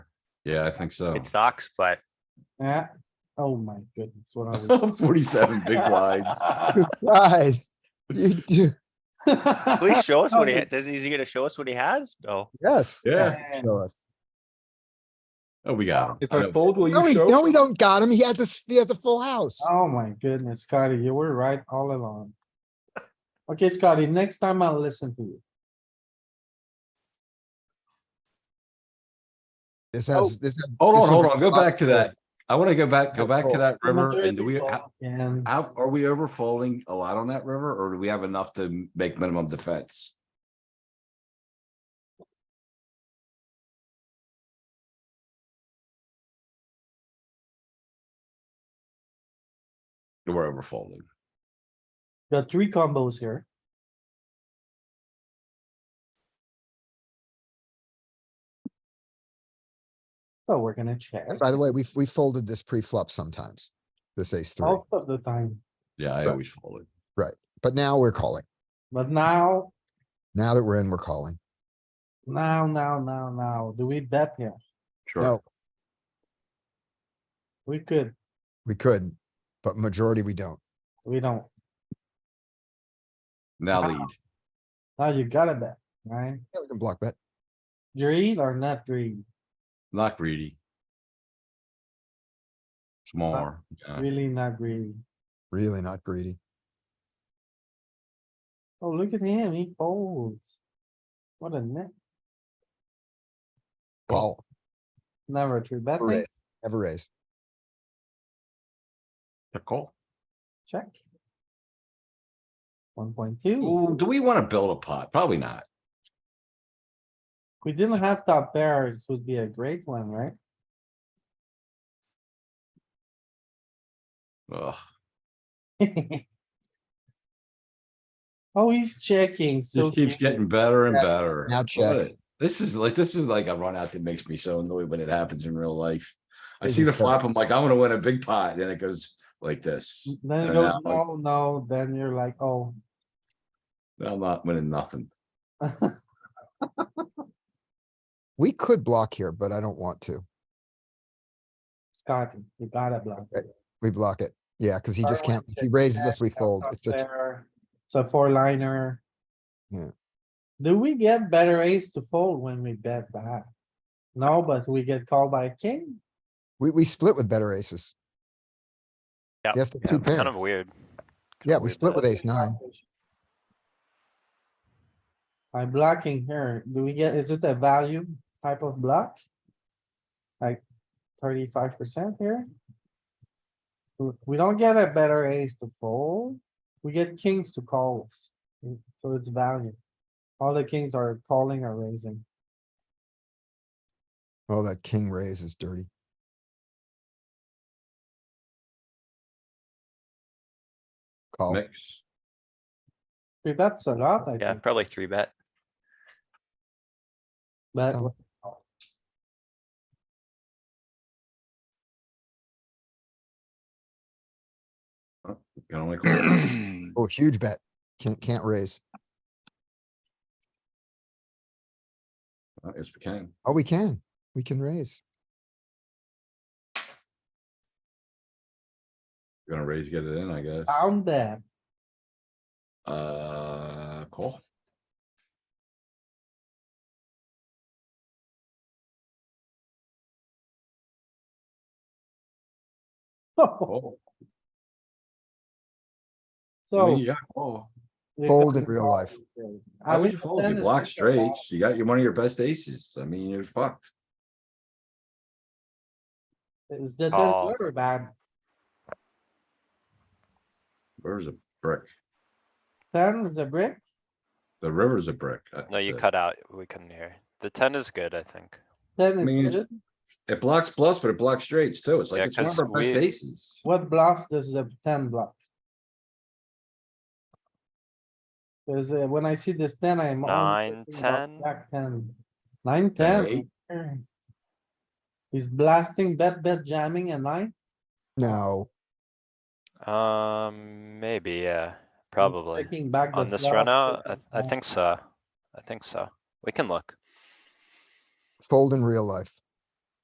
Yeah, I think so. It sucks, but Yeah, oh my goodness, what are Forty-seven big blinds. we? Guys, you do, at least show us what he, ha- doesn't, is he gonna show us what he has? No. yes. Yeah, Yeah. Show us. oh, we got him. If I I know. fold, will No, you we, show? no, we don't got him. He has a, s- he has a full house. Oh my goodness, Scotty, you were right all along. Okay, Scotty, next time I'll listen to you. This Oh, has, this. has- Hold this on, one hold has on, go back to that. lots I wanna go back, go That's back to cool. that river and do we, how, And how- are we over folding a lot on that river or do we have enough to make minimum defense? We're over folding. got three combos here. So we're gonna check of- By the way, we, we folded this pre-flop sometimes, this ace three, Oh. most of the time, Yeah, I Right. always fold it. but now we're calling. but now, Now that we're in, we're calling. now, now, now, now, do we bet here? Sure. No, We could, we could, but majority we don't. we don't. Now Wow. lead. Now you gotta bet, right? Yeah, we can block bet. Greed or not greed? Not greedy. Smaller. yeah. Really not greedy. Really not greedy. Oh, look at him, he folds. What a net, Call, never a true bet, never right? raise, never raise. The call. Check. One point two, Ooh, do we wanna build a pot? Probably not. If we didn't have top pairs, would be a great one, right? Ugh, Oh, he's checking, so. this keeps he- getting better and Yeah, better. now check. What? This is like, this is like a run out that makes me so annoyed when it happens in real life. I This see is the flop, terrible. I'm like, I'm gonna win a big pot, then it goes like this. Then And you now go, I'm like, no, no, then you're like, oh. I'm not winning nothing. We could block here, but I don't want to. Scotty, you gotta block. it. We block it. Yeah, cause he just Darwin can't, if he check raises us, back, we got fold. top It's just, pair, It's a four liner. Yeah. Do we get better ace to fold when we bet back? No, but we get called by king. we, we split with better aces. Yeah, Yes, the yeah, two it's Kind pair. of weird. Yeah, we split with ace nine. By blocking here, do we get, is it a value type of block? Like thirty-five percent here? We- We don't get a better ace to fold, we get kings to call us, mm, so it's value. All the kings are calling or raising, Oh, that king raise is dirty. Call. Mix. three bets a lot, I Yeah, think, probably three bet. but So- Can only call. Oh, huge bet. Can't, can't raise. Uh, Yes, we can. Oh, we can. We can raise. Gonna raise, get it in, I guess. found that, Uh, call. Call. I so. mean, you got call. we Fold got in real called. life. I How would would you fold? You then block it's like a lot. straights, you got your, one of your best aces. I mean, you're fucked. Is that Oh. Call. good or bad? River's a brick. Ten is a brick? The river's a brick. I No, you said. cut out. We couldn't hear. The ten is good, I think. Ten mean, is good. It blocks plus, but it blocks straights too. It's like, Yeah, it's one of 'cause our best we- aces. What bluff does the ten block? Cause uh, when I see this ten, I'm. only Nine, thinking about 10. Jack ten. Nine, Ten, ten. He's blasting bet, bet jamming at nine. No, Um, maybe, yeah, He's probably. Taking back. the On this flush, run out, I, taking I back- think so. I think so. We can look. fold in real life.